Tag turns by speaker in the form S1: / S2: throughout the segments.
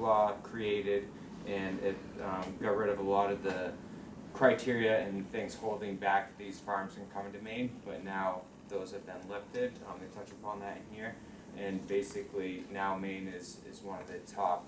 S1: law created and it um, got rid of a lot of the criteria and things holding back these farms from coming to Maine, but now those have been lifted. Um, they touch upon that in here. And basically now Maine is, is one of the top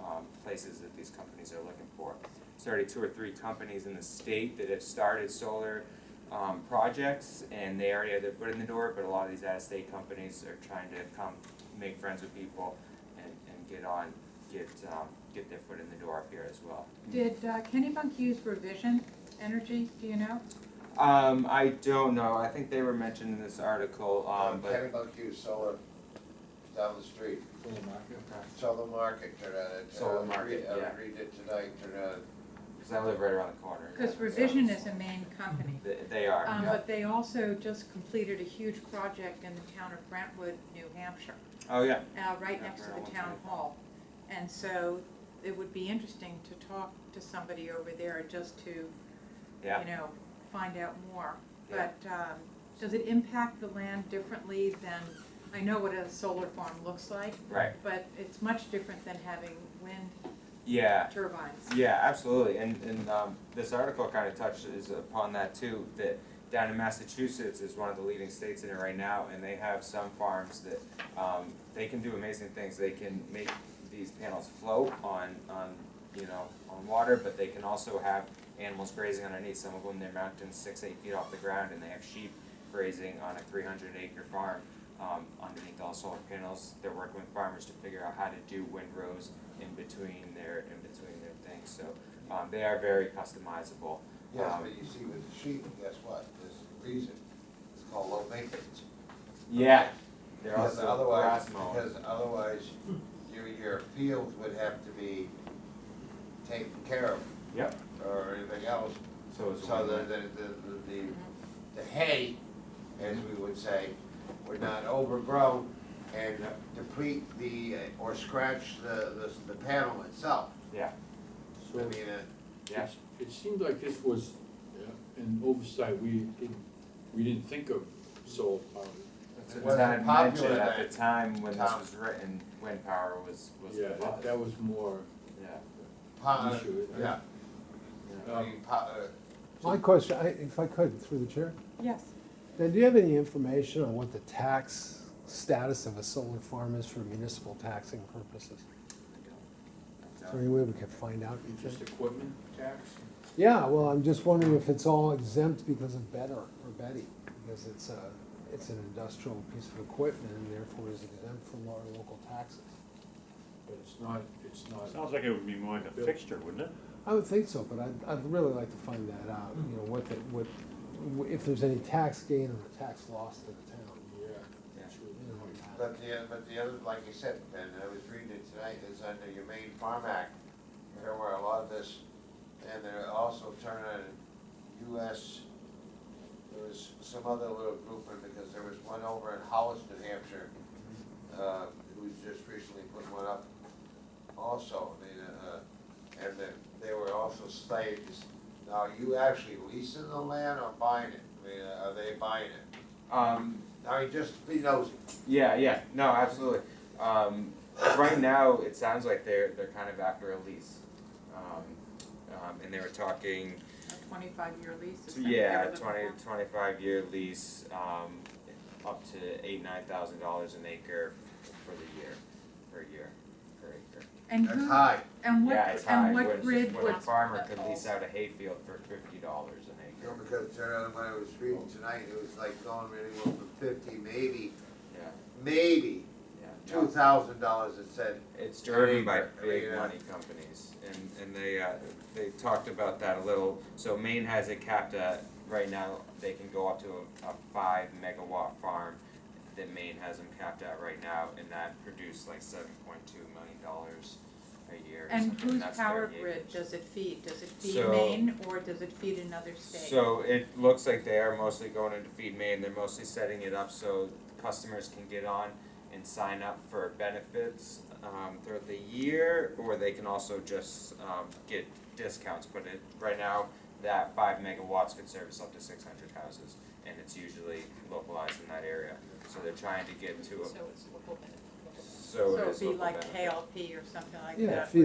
S1: um, places that these companies are looking for. There's already two or three companies in the state that have started solar um, projects and they already have their foot in the door, but a lot of these out-of-state companies are trying to come, make friends with people and, and get on, get, um, get their foot in the door up here as well.
S2: Did uh, Kennebunk use Revision Energy, do you know?
S1: Um, I don't know, I think they were mentioned in this article, um,
S3: Um,
S1: but,
S3: Kevin Buckhugh, solar down the street, solar market, turn on it. uh,
S1: Solar
S3: I was
S1: Market,
S3: read- I
S1: yeah.
S3: was reading it tonight, turn on.
S1: cause I live right around the corner.
S2: Because Revision is a main company.
S1: They, they are,
S2: Um,
S1: yeah.
S2: But they also just completed a huge project in the town of Brentwood, New Hampshire,
S1: oh, yeah,
S2: uh, right
S1: Yeah,
S2: next to
S1: for
S2: the
S1: one
S2: town
S1: twenty-five.
S2: hall. And so it would be interesting to talk to somebody over there just to, you
S1: yeah,
S2: know, find out more.
S1: Yeah.
S2: But um, does it impact the land differently than, I know what a solar farm looks like,
S1: right,
S2: but it's much different than having wind
S1: yeah,
S2: turbines.
S1: yeah, absolutely, and, and, um, this article kinda touches upon that too, that down in Massachusetts is one of the leading states in it right now, and they have some farms that, um, they can do amazing things, they can make these panels float on, on, you know, on water, but they can also have animals grazing underneath, some of them, they're mounted six, eight feet off the ground, and they have sheep grazing on a three hundred acre farm, um, underneath all solar panels, they're working with farmers to figure out how to do windrows in between their, in between their things, so, um, they are very customizable.
S3: Yes,
S1: Um,
S3: but you see with the sheep, guess what, there's a reason, it's called low maintenance.
S1: Yeah, they're
S3: Because
S1: also
S3: otherwise,
S1: grass mowing.
S3: because otherwise, your, your fields would have to be taken care of
S1: Yep,
S3: or anything else.
S1: so it's.
S3: So the, the, the- the, the hay, as we would say, would not overgrow and
S1: Yep.
S3: deplete the, uh, or scratch the, the, the panel itself.
S1: Yeah,
S3: I
S4: So
S3: mean, uh,
S1: yeah,
S4: it's- it seemed like this was uh, an oversight, we didn't, we didn't think of um, solar power.
S1: it's,
S3: It
S1: it's
S3: wasn't
S1: not
S3: popular
S1: mentioned at
S3: then.
S1: the time when this
S3: Tom.
S1: was written, wind power was, was the
S4: Yeah, that- that
S1: buzz.
S4: was more,
S1: Yeah,
S3: pot,
S4: Issue, isn't it?
S3: yeah, I
S4: um,
S3: mean, pot, uh,
S5: My question, I- if I could, through the chair,
S2: Yes.
S5: then do you have any information on what the tax status of a solar farm is for municipal taxing purposes? Is
S1: I
S5: there
S1: don't-
S5: any way we could find out? you
S4: just
S5: think?
S4: equipment tax.
S5: Yeah, well, I'm just wondering if it's all exempt because of Better or Betty, because it's a, it's an industrial piece of equipment and therefore is exempt from our local taxes.
S4: But it's not, it's not,
S6: Sounds like it would be more like a fixture, wouldn't it?
S5: I would think so, but I'd, I'd really like to find that out, you know, what the, what, if there's any tax gain or tax loss to the town,
S4: yeah,
S1: Yeah.
S4: true.
S5: you know, on that.
S3: but the, but the other, like you said, and I was reading it tonight, is under your main farm act. There were a lot of this, and they're also turning US, there was some other little group, in because there was one over in Hollis, New Hampshire, uh, who's just recently put one up also, they, uh, and they, they were also slaves. Now, are you actually leasing the land or buying it? I mean, are they buying it?
S1: Um,
S3: I mean, just be nosy.
S1: Yeah, yeah, no, absolutely. Um, right now, it sounds like they're they're kind of after a lease, um, um, and they were talking,
S2: A twenty-five year lease. is that
S1: yeah,
S2: what they were
S1: twenty
S2: looking
S1: twenty five year lease, um, up to eight nine thousand dollars an acre for the year, per year, per acre.
S2: for? And
S3: That's
S2: who,
S3: high.
S2: and
S1: yeah, it's
S2: what,
S1: high.
S2: and
S1: when,
S2: what grid
S1: when
S2: would?
S1: a farmer could lease out a hayfield for fifty dollars an
S3: You know,
S1: acre.
S3: because turn out when I was reading tonight, it was like going really well for fifty, maybe,
S1: Yeah,
S3: maybe
S1: yeah. no.
S3: two thousand dollars it said.
S1: It's driven by
S3: Labor,
S1: big
S3: yeah.
S1: money companies, and, and they, uh, they talked about that a little, so Maine has it capped at, right now, they can go up to a, a five megawatt farm that Maine has them capped at right now, and that produced like seven point two million dollars a year or
S2: And
S1: something,
S2: whose
S1: that's
S2: power
S1: 38.
S2: grid does it feed? Does it feed
S1: So-
S2: Maine or does it feed another state?
S1: So it looks like they are mostly going into feed Maine, they're mostly setting it up so customers can get on and sign up for benefits um throughout the year, or they can also just um get discounts, but it, right now, that five megawatts could service up to six hundred houses, and it's usually localized in that area, so they're trying to get to a.
S7: So it's local benefit.
S1: so it is.
S2: So it'd be
S1: local
S2: like
S1: benefit.
S2: KLP or something like that.
S5: Yeah, if
S2: where